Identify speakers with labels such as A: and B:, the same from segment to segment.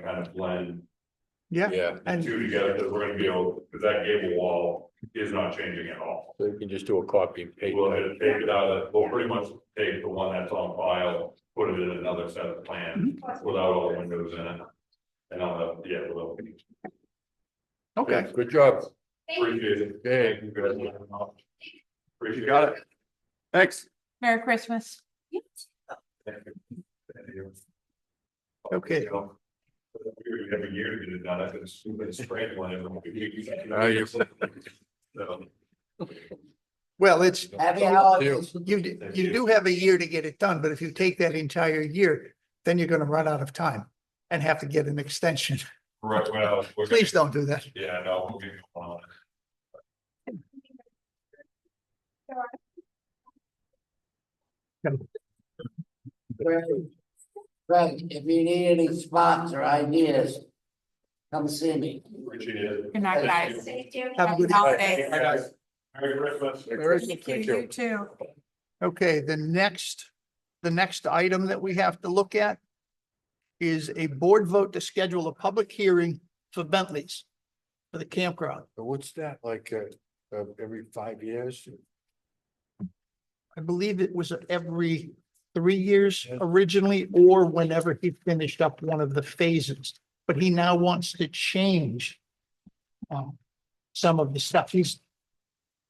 A: kind of blend
B: yeah,
C: Yeah,
A: the
B: and
A: two together, because we're gonna be able, because that gable wall is not changing at all.
C: so you can just do a copy and paste.
A: We'll have to take it out, of- we'll pretty much take the one that's on file, put it in another set of plans
B: Mm-hmm.
A: without all the windows in it. And I'll, have- yeah, we'll
B: okay.
C: Good job.
A: appreciate it.
C: Okay.
A: Congratulations. Appreciate
B: You got it. Thanks.
D: Merry Christmas.
A: Thank you. Thank you.
B: Okay.
A: You know, Every year to get it done, I've been stupid spraying one every.
C: Now
B: Oh,
C: you-
A: So,
B: Well, it's,
E: Happy
B: Yeah.
E: holidays.
B: you, d-
A: Thank
B: you
A: you.
B: do have a year to get it done, but if you take that entire year, then you're gonna run out of time and have to get an extension.
A: Right, well. we're gonna-
B: Please don't do that.
A: Yeah, no, we'll be on.
E: Greg, if you need any spots or ideas, come see me.
A: Appreciate it.
D: Good night, guys.
B: Have a good
D: Happy
A: Hey,
D: holidays.
A: Hi, guys. Merry Christmas.
D: Thank you, you too.
B: Okay, the next, the next item that we have to look at is a board vote to schedule a public hearing for Bentley's for the campground.
C: But What's that, like, uh, uh, every five years?
B: I believe it was every three years
C: Yes.
B: originally, or whenever he finished up one of the phases. But he now wants to change um, some of the stuff. He's,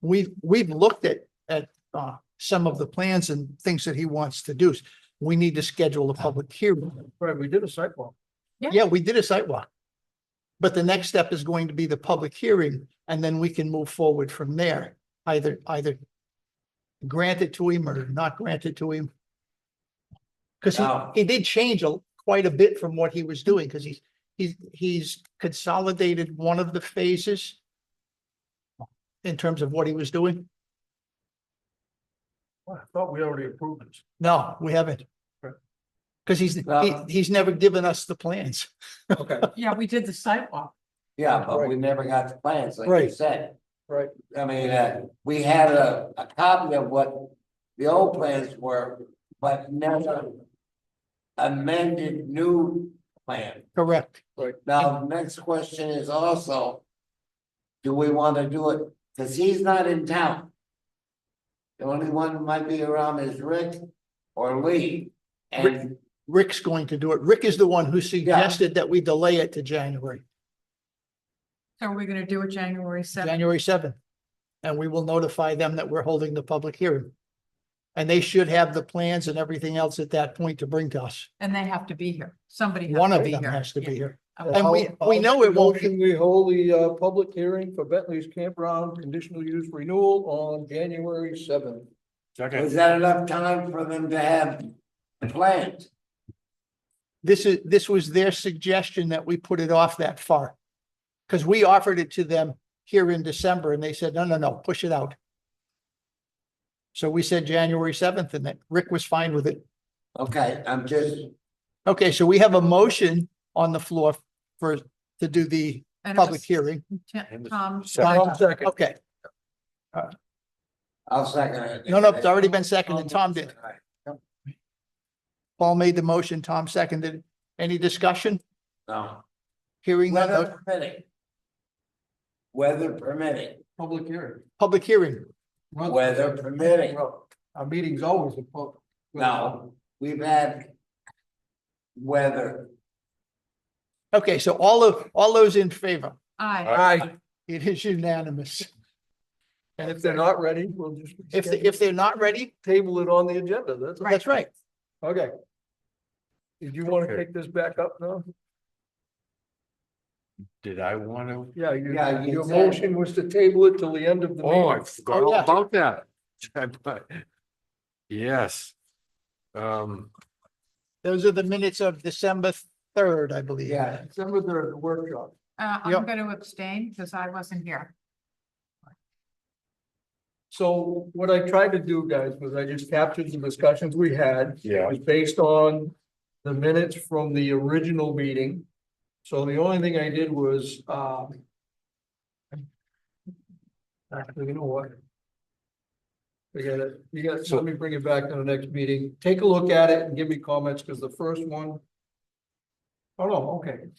B: we've, we've looked at, at uh, some of the plans and things that he wants to do. We need to schedule a public hearing.
C: Right, we did a sidewalk.
B: Yeah, we did a sidewalk. But the next step is going to be the public hearing, and then we can move forward from there, either, either grant it to him or not grant it to him. Because he,
E: Now-
B: he did change a- quite a bit from what he was doing, because he's, he's, he's consolidated one of the phases in terms of what he was doing.
C: I thought we already approved this.
B: No, we haven't. Because he's, he,
E: Now-
B: he's never given us the plans.
C: Okay,
D: Yeah, we did the sidewalk.
E: Yeah, but we never got the plans, like you
B: Right.
E: said.
C: Right.
E: I mean, uh, we had a, a copy of what the old plans were, but never amended new plan.
B: Correct.
E: Now, next question is also, do we want to do it? Because he's not in town. The only one who might be around is Rick or Lee. And
B: Rick's going to do it. Rick is the one who suggested that we delay it to January,
D: So we're gonna do it January seventh.
B: January seventh. And we will notify them that we're holding the public hearing. And they should have the plans and everything else at that point to bring to us.
D: And they have to be here. Somebody
B: One
D: has to
B: of
D: be
B: them
D: here.
B: has to be
D: Yeah.
B: here.
D: Okay.
B: And we, we know it won't, be-
F: Motion, we hold the uh public hearing for Bentley's Campground Conditional Use Renewal on January seventh.
C: second,
E: is that enough time for them to have plans?
B: this is, this was their suggestion that we put it off that far. Because we offered it to them here in December and they said, no, no, no, push it out. So we said January seventh and that Rick was fine with it.
E: Okay, I'm just,
B: Okay, so we have a motion on the floor for, to do the
D: And it
B: public
D: was
B: hearing.
D: Tim- Tom,
B: Tom,
F: second.
B: Okay,
E: I'll second it.
B: no, no, it's already been seconded. Tom did. Paul made the motion, Tom seconded. Any discussion?
E: No,
B: Hearing none, uh,
E: weather permitting. Weather permitting,
F: Public hearing.
B: public hearing.
F: Run-
E: weather permitting.
F: Well, Our meeting's always a pub.
E: No, we've had weather,
B: Okay, so all of, all those in favor,
D: I,
F: Aye,
B: it is unanimous.
F: and if they're not ready, we'll just.
B: If, they- if they're not ready,
F: Table it on the agenda, that's,
B: that's right.
F: okay. Did you want to
C: Okay.
F: take this back up now?
C: did I wanna?
F: Yeah, you,
E: Yeah, you
F: your
E: said-
F: motion was to table it till the end of the meeting.
C: Oh, I forgot
B: Oh,
C: all
B: yeah.
C: about that. I thought- Yes. Um,
B: Those are the minutes of December third, I believe.
E: yeah,
F: December third, the workshop.
D: uh,
B: Yep.
D: I'm gonna abstain because I wasn't here.
F: So what I tried to do, guys, was I just captured the discussions we had.
C: yeah,
F: was based on the minutes from the original meeting. So the only thing I did was, um. Actually, you know what? Forget it. You got, so let me bring it back to the next meeting. Take a look at it and give me comments, because the first one. Oh, no, okay.